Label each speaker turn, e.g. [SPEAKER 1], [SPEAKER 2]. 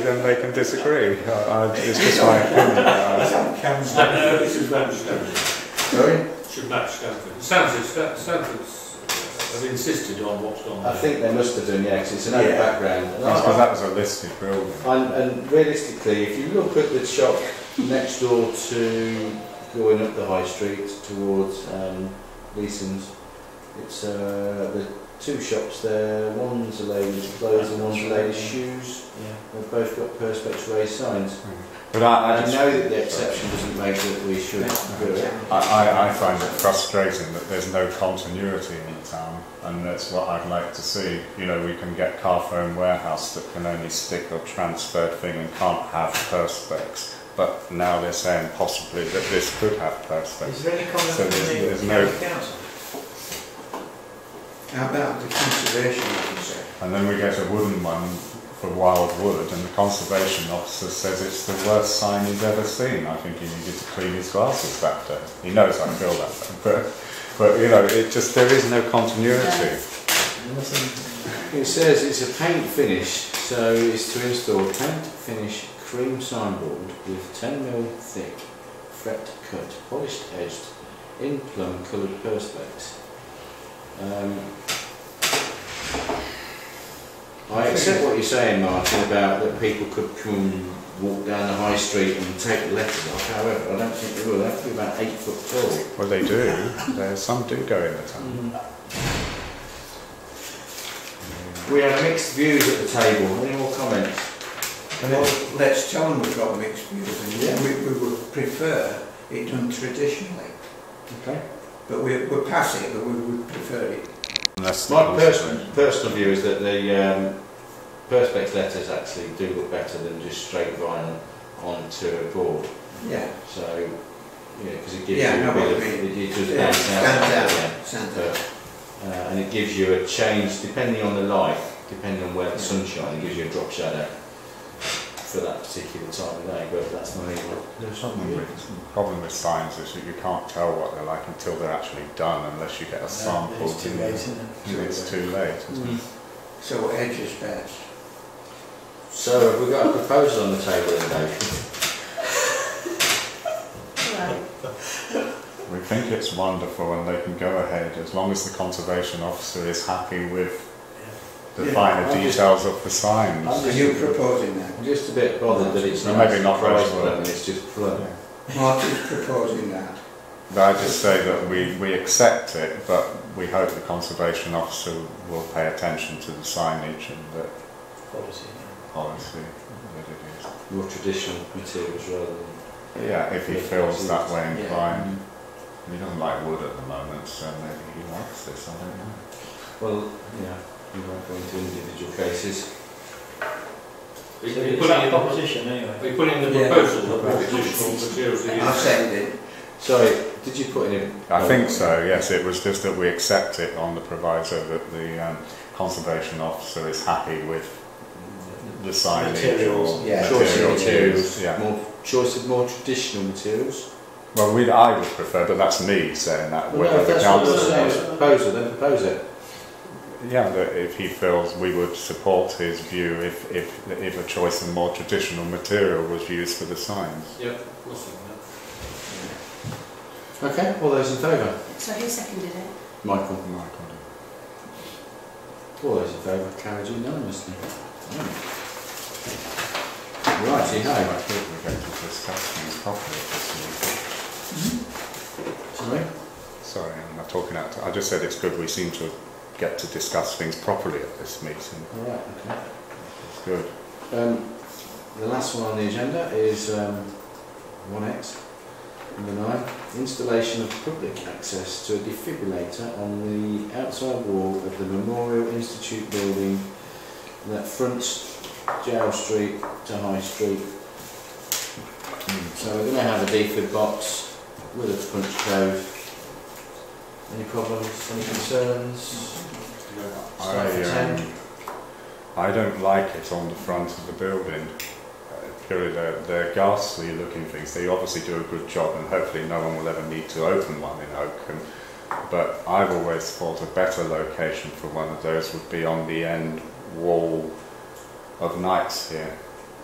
[SPEAKER 1] Then they can disagree. Uh, uh, it's just my opinion. Uh,
[SPEAKER 2] Cam's
[SPEAKER 3] No, no, this is Matt Stanford.
[SPEAKER 4] Sorry?
[SPEAKER 3] Should match Stanford. Stanford, Sta- Stanford's have insisted on what's on
[SPEAKER 4] I
[SPEAKER 3] there.
[SPEAKER 4] think they must have done, yeah, 'cause it's an
[SPEAKER 2] Yeah.
[SPEAKER 4] old background.
[SPEAKER 1] that's 'cause that was a listed building.
[SPEAKER 4] And, and realistically, if you look at the shop next door to going up the high street towards um, Leeson's, it's uh, the two shops there. One's a lady's clothes and one's a lady's shoes. They've both got perspex raised signs.
[SPEAKER 1] But I, I
[SPEAKER 4] I
[SPEAKER 1] just
[SPEAKER 4] know that the exception doesn't make that we should do it.
[SPEAKER 1] I, I, I find it frustrating that there's no continuity in the town, and that's what I'd like to see. You know, we can get Carphone Warehouse that can only stick a transferred thing and can't have perspex, but now they're saying possibly that this could have perspex.
[SPEAKER 2] Is there any comment
[SPEAKER 1] So
[SPEAKER 2] from
[SPEAKER 1] there's- there's
[SPEAKER 2] the
[SPEAKER 1] no-
[SPEAKER 2] county council? How about the conservation concern?
[SPEAKER 1] And then we get a wooden one for wild wood, and the conservation officer says it's the worst sign he's ever seen. I think he needed to clean his glasses that day. He knows I feel that, way, but but you know, it just there is no continuity.
[SPEAKER 4] It says it's a paint finish, so it's to install paint finish cream signboard with 10mm thick fret cut, polished edged, in plum coloured perspex. Um, I accept what you're saying, Martin, about that people could come and walk down the high street and take the letters off. However, I don't think they will. They have to be about eight foot tall.
[SPEAKER 1] Well, they do. There, some do go in the town.
[SPEAKER 5] Mm-hmm.
[SPEAKER 4] We had mixed views at the table. Any more comments?
[SPEAKER 2] Well, let's tell them we've got mixed views
[SPEAKER 4] Yeah.
[SPEAKER 2] and we, we would prefer it done traditionally.
[SPEAKER 4] Okay.
[SPEAKER 2] But we, we're past it, but we would prefer it.
[SPEAKER 1] Unless the
[SPEAKER 4] My
[SPEAKER 1] conservation-
[SPEAKER 4] personal personal view is that the um, perspex letters actually do look better than just straight vinyl onto a board.
[SPEAKER 2] Yeah,
[SPEAKER 4] So, yeah, because it gives
[SPEAKER 2] Yeah,
[SPEAKER 4] you
[SPEAKER 2] I know
[SPEAKER 4] a bit
[SPEAKER 2] what
[SPEAKER 4] of,
[SPEAKER 2] you
[SPEAKER 4] it, it just
[SPEAKER 2] Yeah,
[SPEAKER 4] stands out.
[SPEAKER 2] stands out.
[SPEAKER 4] Yeah.
[SPEAKER 2] sounds
[SPEAKER 4] But, uh, and it gives you a change depending on the light, depending on where the sun's shining, it gives you a drop shadow for that particular time of day. But that's not even. There's
[SPEAKER 1] Problem with, problem with signs is that you can't tell what they're like until they're actually done, unless you get a sample.
[SPEAKER 5] It's too
[SPEAKER 1] and
[SPEAKER 5] late, isn't it?
[SPEAKER 1] you- It's too late.
[SPEAKER 2] So edge is best.
[SPEAKER 4] So have we got a proposal on the table then, Dave?
[SPEAKER 1] We think it's wonderful and they can go ahead as long as the conservation officer is happy with the
[SPEAKER 2] Yeah,
[SPEAKER 1] finer
[SPEAKER 4] I'll just-
[SPEAKER 1] details of the signs.
[SPEAKER 4] I'll
[SPEAKER 2] Are
[SPEAKER 4] just-
[SPEAKER 2] you proposing that?
[SPEAKER 4] I'm just a bit bothered that it's
[SPEAKER 1] Well,
[SPEAKER 4] not
[SPEAKER 1] maybe not very
[SPEAKER 4] price
[SPEAKER 1] well.
[SPEAKER 4] plum, it's just plum.
[SPEAKER 2] Martin's proposing that.
[SPEAKER 1] But I just say that we, we accept it, but we hope the conservation officer will pay attention to the signage and the
[SPEAKER 5] Policy.
[SPEAKER 1] policy that
[SPEAKER 4] More traditional materials rather than.
[SPEAKER 1] it is. Yeah, if he feels that way
[SPEAKER 5] Yeah.
[SPEAKER 1] inclined. He doesn't like wood at the moment, so maybe he likes this, I don't know.
[SPEAKER 4] Well, yeah, we won't go into individual cases.
[SPEAKER 5] So
[SPEAKER 3] He- he
[SPEAKER 5] it's
[SPEAKER 3] put
[SPEAKER 5] in
[SPEAKER 3] in,
[SPEAKER 5] opposition anyway.
[SPEAKER 3] he put in the
[SPEAKER 2] Yeah.
[SPEAKER 3] proposal that traditional materials are used.
[SPEAKER 2] I've said it.
[SPEAKER 4] Sorry, did you put in? a-
[SPEAKER 1] I think so, yes. It was just that we accept it on the proviso that the um, conservation officer is happy with the signage
[SPEAKER 5] Materials,
[SPEAKER 1] or
[SPEAKER 2] yeah.
[SPEAKER 4] Choice of
[SPEAKER 1] material
[SPEAKER 4] materials,
[SPEAKER 1] used, Yeah.
[SPEAKER 4] more choice of more traditional materials.
[SPEAKER 1] Well, we, I would prefer, but that's me saying that.
[SPEAKER 4] Well, no,
[SPEAKER 1] Uh, Whether
[SPEAKER 4] if
[SPEAKER 1] the
[SPEAKER 4] that's what
[SPEAKER 1] council,
[SPEAKER 4] you're saying,
[SPEAKER 5] council-
[SPEAKER 4] it's a proposal, then propose it.
[SPEAKER 1] yeah, that if he feels we would support his view if, if, if a choice of more traditional material was used for the signs.
[SPEAKER 3] Yep, of course they can.
[SPEAKER 4] Okay, all those in favour?
[SPEAKER 6] So who seconded it?
[SPEAKER 4] Michael.
[SPEAKER 1] Michael,
[SPEAKER 4] All those in favour, carried unanimously. Mm. Right, you know.
[SPEAKER 1] I think we're going to discuss things properly at this meeting.
[SPEAKER 4] Sorry?
[SPEAKER 1] Sorry, I'm not talking out. I just said it's good we seem to get to discuss things properly at this meeting.
[SPEAKER 4] All right, okay.
[SPEAKER 1] It's good.
[SPEAKER 4] Um, the last one on the agenda is um, 1X, number 9. Installation of public access to a defibrillator on the outside wall of the Memorial Institute building that fronts Jail Street to High Street. Hmm, So we're going to have a defib box with a punch code. Any problems, any concerns? Start
[SPEAKER 1] I,
[SPEAKER 4] for 10.
[SPEAKER 1] um, I don't like it on the front of the building. Uh, Purely, they're, they're ghastly looking things. They obviously do a good job, and hopefully, no one will ever need to open one in Oakham. But I've always thought a better location for one of those would be on the end wall of Knights here.